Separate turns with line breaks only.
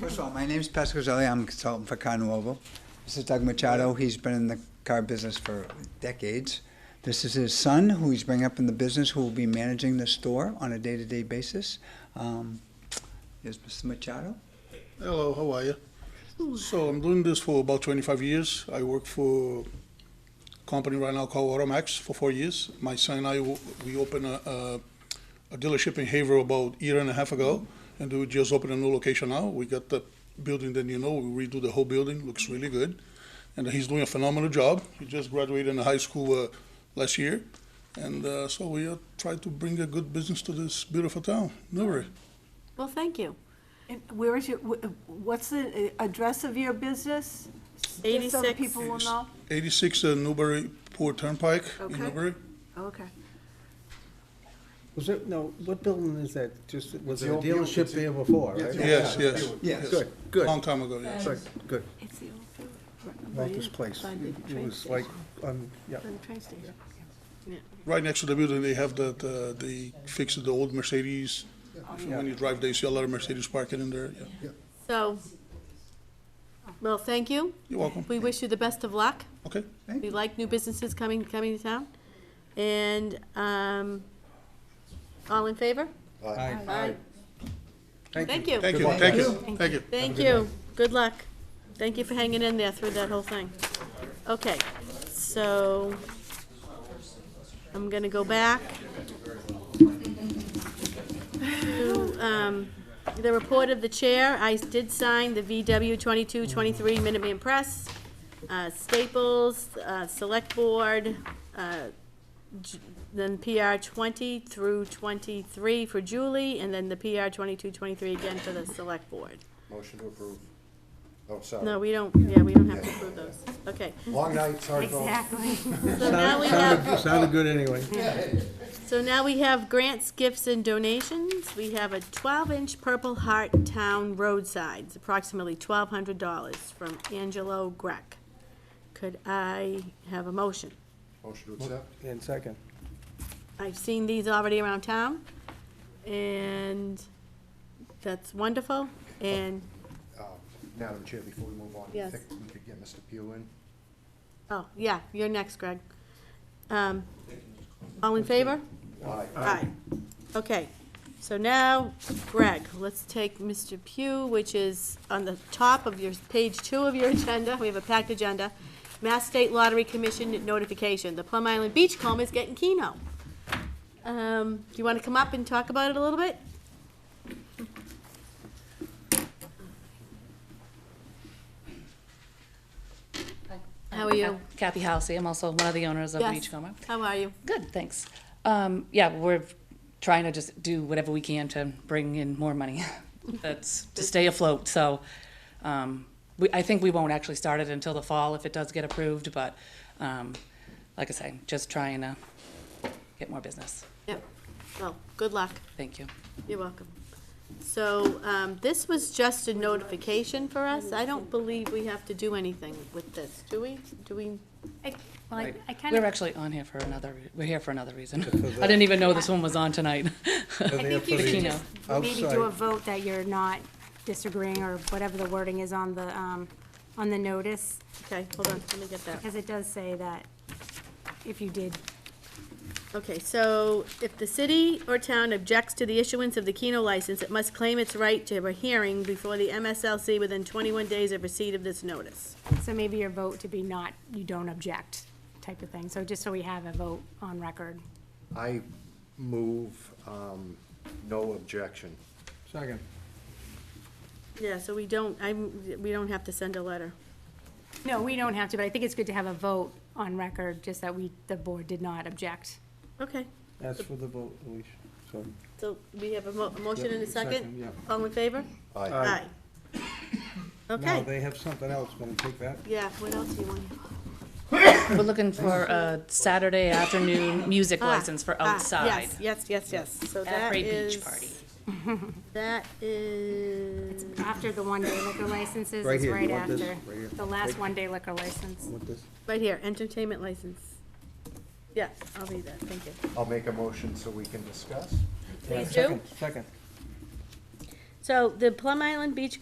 First of all, my name's Pascal Zelli. I'm a consultant for Carnoval. This is Doug Machado. He's been in the car business for decades. This is his son, who he's bringing up in the business, who will be managing the store on a day-to-day basis. Um, Here's Mr. Machado.
Hello, how are you? So I'm doing this for about 25 years. I work for a company right now called Automax for four years. My son and I, w- we opened a, a, a dealership in Haverhill about a year and a half ago, and we just opened a new location now. We got the building that you know, we redo the whole building, looks really good. And he's doing a phenomenal job. He just graduated in high school uh, last year. And uh, so we are trying to bring a good business to this beautiful town, Newbury.
Well, thank you. And where is your, wh- what's the uh, address of your business? Just so the
86.
people will know?
86 uh, Newburyport Turnpike
Okay.
in Newbury.
Okay.
Was it, no, what building is that? Just, was there a
old building,
dealership
it's the-
there before, right?
Yes, yes.
Yes.
Good, good,
Long time ago, yes.
good, good.
It's the old field. right by
Walter's
the-
Place.
by the
It
train
was like,
station.
um, yeah.
By the train station.
Right next to the building, they have that, uh, they fixed the old Mercedes. So When you drive, there, you see a lot of Mercedes parking in there. yeah.
So, well, thank you.
You're welcome.
We wish you the best of luck.
Okay,
We like new businesses coming, coming to town. And, um, all in favor? Aye. Thank you.
thank you, thank you, thank you.
Thank you. Good luck. Thank you for hanging in there through that whole thing. Okay, so I'm gonna go back to, um, the report of the chair. I did sign the VW twenty-two, twenty-three Minuteman Press, uh, Staples, uh, Select Board, uh, J- then PR twenty through twenty-three for Julie, and then the PR twenty-two, twenty-three again for the Select Board.
Motion to approve. Oh,
No,
sorry.
we don't, yeah, we don't have to approve those. Okay,
Long night, sorry, folks.
so now we have,
Sounded good anyway.
so now we have grants, gifts, and donations. We have a twelve-inch Purple Heart Town roadside, it's approximately twelve hundred dollars from Angelo Greck. Could I have a motion?
Motion to accept.
And second.
I've seen these already around town, and that's wonderful, and,
Uh, Madam Chair, before we move on, do you
Yes.
think we could get Mr. Pugh in?
oh, yeah, you're next, Greg. Um, all in favor?
Aye.
Aye. Okay, so now, Greg, let's take Mr. Pugh, which is on the top of your, page two of your agenda. We have a packed agenda. Mass State Lottery Commission notification, the Plum Island Beachcomb is getting Keno. Um, do you want to come up and talk about it a little bit? How are you?
Kathy Halsey, I'm also one of the owners of
Yes.
Beachcomber.
How are you?
Good, thanks. Um, yeah, we're trying to just do whatever we can to bring in more money. That's to stay afloat, so, um, we, I think we won't actually start it until the fall if it does get approved, but, um, like I say, just trying to get more business.
Yep, well, good luck.
Thank you.
You're welcome. So, um, this was just a notification for us. I don't believe we have to do anything with this, do we? Do we?
I- Well, I- I kind
We're
of,
actually on here for another, re- we're here for another reason. I didn't even know this one was on tonight.
I think you should
Keno.
just maybe do
Outside.
a vote that you're not disagreeing or whatever the wording is on the, um, on the notice,
Okay, hold on, let me get that.
because it does say that if you did
Okay, so if the city or town objects to the issuance of the Keno license, it must claim its right to a hearing before the MSLC within twenty-one days of receipt of this notice.
So maybe your vote to be not, you don't object type of thing, so just so we have a vote on record.
I move, um, no objection.
Second.
Yeah, so we don't, I'm, we don't have to send a letter.
No, we don't have to, but I think it's good to have a vote on record, just that we, the board did not object.
Okay,
That's for the vote, Alicia. So,
so we have a mo- a motion and a
Second,
second?
yeah.
All in favor?
Aye.
Aye.
now
Okay,
they have something else. Want to take that?
yeah, what else do you want?
We're looking for a Saturday afternoon music
Ah,
license for
ah,
outside.
Yes, yes, yes, yes, so that
At a
is.
beach party.
That is,
After the one-day liquor licenses,
Right
it's
here, you
right
want this?
after.
Right here.
The last one-day liquor license.
Want this?
right here, entertainment license. Yeah, I'll read that, thank you.
I'll make a motion so we can discuss.
Please do.
Second, second.
So the Plum Island Beach